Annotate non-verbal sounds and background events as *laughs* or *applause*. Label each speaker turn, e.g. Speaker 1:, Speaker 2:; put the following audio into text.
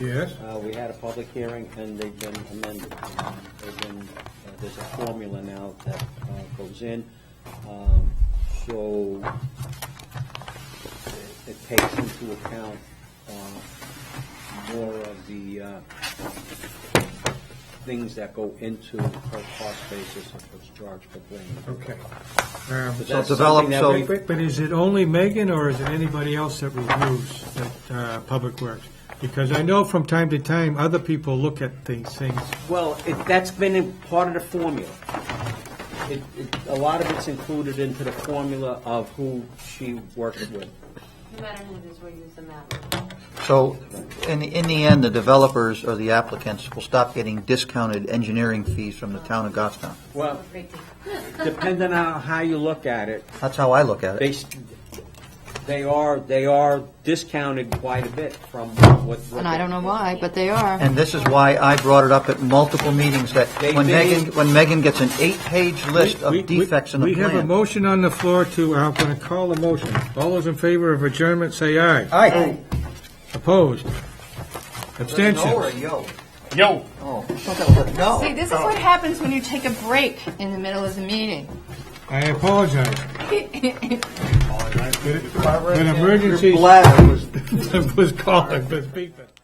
Speaker 1: Yes,
Speaker 2: Uh, we had a public hearing, and they've been amended. They've been, uh, there's a formula now that uh, goes in, um, so it- it takes into account uh, more of the uh, things that go into per cost basis of what's charged for planning.
Speaker 1: okay. Um,
Speaker 2: But
Speaker 3: So
Speaker 2: that's
Speaker 3: develop-
Speaker 2: something that
Speaker 3: so-
Speaker 2: we-
Speaker 1: But but is it only Megan, or is it anybody else that reviews at uh, Public Works? Because I know from time to time, other people look at these things.
Speaker 2: Well, it, that's been in part of the formula. It, it, a lot of it's included into the formula of who she works with.
Speaker 4: No matter who it is, we use the map.
Speaker 3: So, in, in the end, the developers or the applicants will stop getting discounted engineering fees from the town of Goffstown.
Speaker 2: Well,
Speaker 4: Great deal.
Speaker 2: depending on how you look at it,
Speaker 3: That's how I look at
Speaker 2: they,
Speaker 3: it.
Speaker 2: s- they are, they are discounted quite a bit from what. what
Speaker 5: And I don't know why, but they are.
Speaker 3: And this is why I brought it up at multiple meetings, that
Speaker 2: They-
Speaker 3: when
Speaker 2: they-
Speaker 3: Megan, when Megan gets an eight-page list
Speaker 1: We-
Speaker 3: of
Speaker 1: we-
Speaker 3: defects in the
Speaker 1: We have a
Speaker 3: plan.
Speaker 1: motion on the floor to, uh, I'm going to call the motion. All those in favor of adjournment, say aye.
Speaker 3: Aye.
Speaker 1: Oh, Opposed?
Speaker 3: No or
Speaker 1: Abstentions?
Speaker 3: a yo?
Speaker 6: Yo.
Speaker 3: Oh, I thought that was a no.
Speaker 5: See,
Speaker 1: Oh.
Speaker 5: this is what happens when you take a break in the middle of the meeting.
Speaker 1: I apologize. *laughs*
Speaker 3: Barbara,
Speaker 1: An emergency
Speaker 3: Your bladder was
Speaker 1: was called, but speak.